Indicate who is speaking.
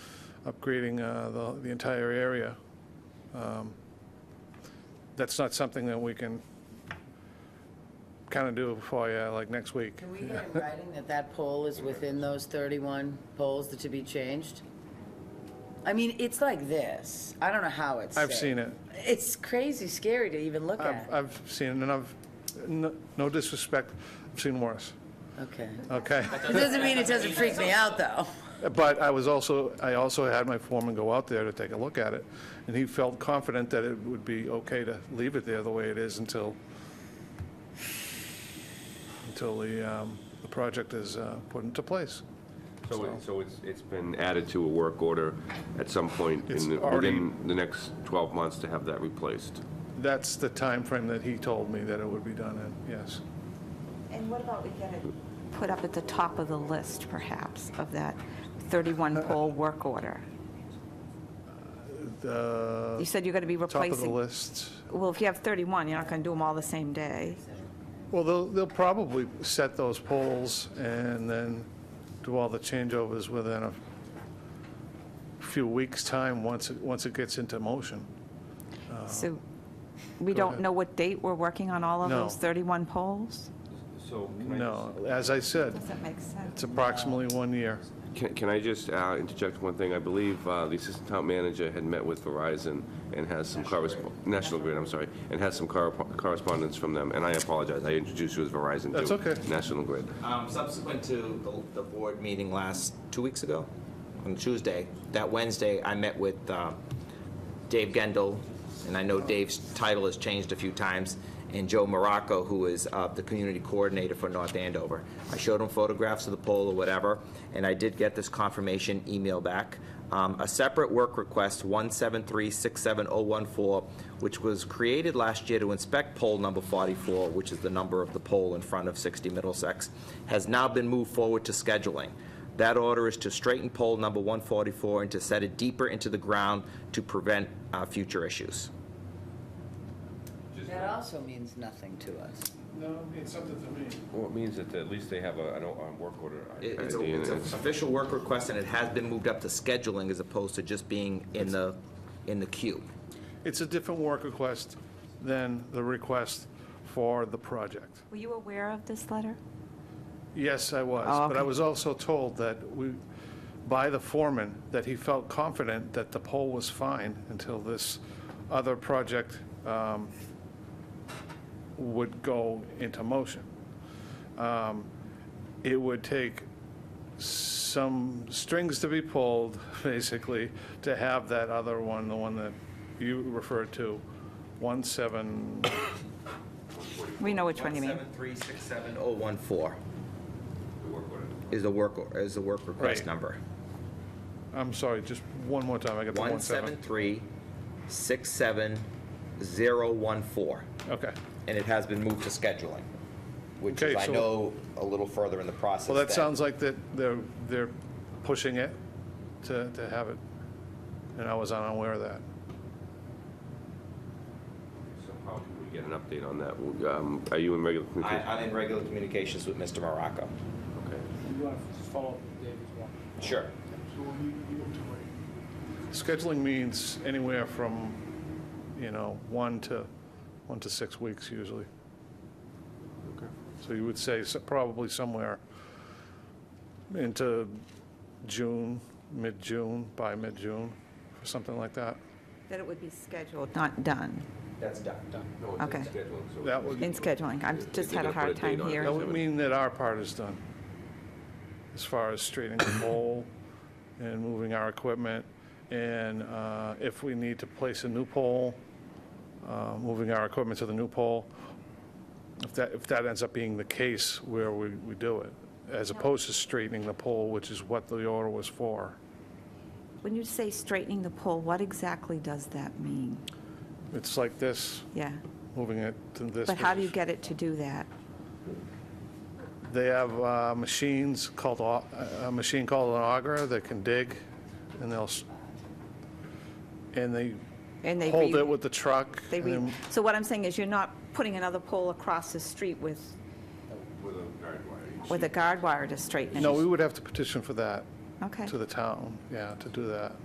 Speaker 1: upgrading uh, the the entire area. Um, That's not something that we can kind of do for you, like, next week.
Speaker 2: Can we get in writing that that poll is within those 31 polls that to be changed? I mean, it's like this. I don't know how it's.
Speaker 1: I've
Speaker 2: saved.
Speaker 1: seen it.
Speaker 2: It's crazy scary to even look
Speaker 1: I've
Speaker 2: at.
Speaker 1: I've seen, it, and I've, no no disrespect, I've seen worse,
Speaker 2: Okay.
Speaker 1: okay?
Speaker 2: It doesn't mean it doesn't freak me out, though.
Speaker 1: But I was also, I also had my foreman go out there to take a look at it, and he felt confident that it would be okay to leave it there the way it is until, until the, um, the project is uh, put into place.
Speaker 3: So it- so it's, it's been added to a work order at some point
Speaker 1: It's
Speaker 3: in, the-
Speaker 1: already-
Speaker 3: within the next 12 months to have that replaced?
Speaker 1: That's the time frame that he told me that it would be done in, yes.
Speaker 4: And what about we get it put up at the top of the list, perhaps, of that
Speaker 1: Uh,
Speaker 4: 31-pole work order? You
Speaker 1: The
Speaker 4: said you're going to be
Speaker 1: uh, top
Speaker 4: replacing...
Speaker 1: of the list.
Speaker 4: Well, if you have 31, you're not going to do them all the same day.
Speaker 1: Uh-huh. Well, they'll, they'll probably set those poles and then do all the changeovers within a few weeks' time, once, it once it gets into motion.
Speaker 4: So we
Speaker 1: go
Speaker 4: don't
Speaker 1: ahead.
Speaker 4: know what date we're working on all of
Speaker 1: No.
Speaker 4: those 31 poles?
Speaker 3: So
Speaker 1: No, as I said,
Speaker 4: Does that make sense?
Speaker 1: it's approximately one year.
Speaker 3: Can, can I just uh, interject one thing? I believe uh, the assistant town manager had met with Verizon and has some correspondence, National Grid, I'm sorry, and has some corre- correspondence from them, and I apologize, I introduced you as Verizon, too.
Speaker 1: That's okay.
Speaker 3: National Grid.
Speaker 5: Um, Subsequent to the, the board meeting last, two weeks ago, on Tuesday, that Wednesday, I met with uh, Dave Gendel, and I know Dave's title has changed a few times, and Joe Morocco, who is uh, the community coordinator for North Andover. I showed him photographs of the pole or whatever, and I did get this confirmation email back. Um, A separate work request, 173-67014, which was created last year to inspect pole number 44, which is the number of the pole in front of 60 Middlesex, has now been moved forward to scheduling. That order is to straighten pole number 144 and to set it deeper into the ground to prevent uh, future issues.
Speaker 2: That also means nothing to us.
Speaker 1: No, it's something to me.
Speaker 3: Well, it means that at least they have a, I don't, a work order.
Speaker 5: It- It's
Speaker 3: ID, and
Speaker 5: an
Speaker 3: it's-
Speaker 5: official work request, and it has been moved up to scheduling as opposed to just being in the, in the queue.
Speaker 1: It's a different work request than the request for the project.
Speaker 4: Were you aware of this letter?
Speaker 1: Yes, I was.
Speaker 4: Oh,
Speaker 1: But I
Speaker 4: okay.
Speaker 1: was also told that we, by the foreman, that he felt confident that the pole was fine until this other project um, would go into motion. Um, It would take some strings to be pulled, basically, to have that other one, the one that you referred to, 17,
Speaker 4: We know which one you mean.
Speaker 5: 173-67014 is the work, or- is the work request
Speaker 1: Right.
Speaker 5: number.
Speaker 1: I'm sorry, just one more time, I got the 17.
Speaker 5: 173-67014.
Speaker 1: Okay.
Speaker 5: and it has been moved to scheduling, which
Speaker 1: Okay,
Speaker 5: is, I
Speaker 1: so-
Speaker 5: know, a little further in the process.
Speaker 1: Well, that
Speaker 5: than-
Speaker 1: sounds like that they're, they're pushing it to, to have it, and I was unaware of that.
Speaker 3: So how can we get an update on that? Um, Are you in regular
Speaker 5: I,
Speaker 3: communication?
Speaker 5: I'm in regular communications with Mr. Morocco.
Speaker 3: Okay.
Speaker 6: You want to follow up with Dave as well?
Speaker 5: Sure.
Speaker 1: Scheduling means anywhere from, you know, one to, one to six weeks usually. So you would say so- probably somewhere into June, mid-June, by mid-June, or something like that.
Speaker 4: That it would be scheduled, not done,
Speaker 5: That's done.
Speaker 3: No, it's
Speaker 4: Okay.
Speaker 3: scheduled, so-
Speaker 1: That would,
Speaker 4: in scheduling. I just had
Speaker 3: They're gonna
Speaker 4: a
Speaker 3: put a
Speaker 4: hard
Speaker 3: date
Speaker 4: time
Speaker 3: on it.
Speaker 4: here.
Speaker 1: that would mean that our part is done, as far as straightening the pole and moving our equipment, and uh, if we need to place a new pole, uh, moving our equipment to the new pole, if that, if that ends up being the case where we, we do it, as opposed to straightening the pole, which is what the order was for.
Speaker 4: When you say straightening the pole, what exactly does that mean?
Speaker 1: It's like this,
Speaker 4: Yeah.
Speaker 1: moving it to this.
Speaker 4: But how do you
Speaker 1: position.
Speaker 4: get it to do that?
Speaker 1: They have uh, machines called, au- a a machine called an auger that can dig, and they'll, s- and they
Speaker 4: And they
Speaker 1: hold
Speaker 4: re-
Speaker 1: it with the truck.
Speaker 4: They
Speaker 1: and
Speaker 4: re,
Speaker 1: then-
Speaker 4: so what I'm saying is you're not putting another pole across the street with, with a guard wire to straighten it?
Speaker 1: No, we would have to petition for that,
Speaker 4: Okay.
Speaker 1: to the town, yeah, to do that.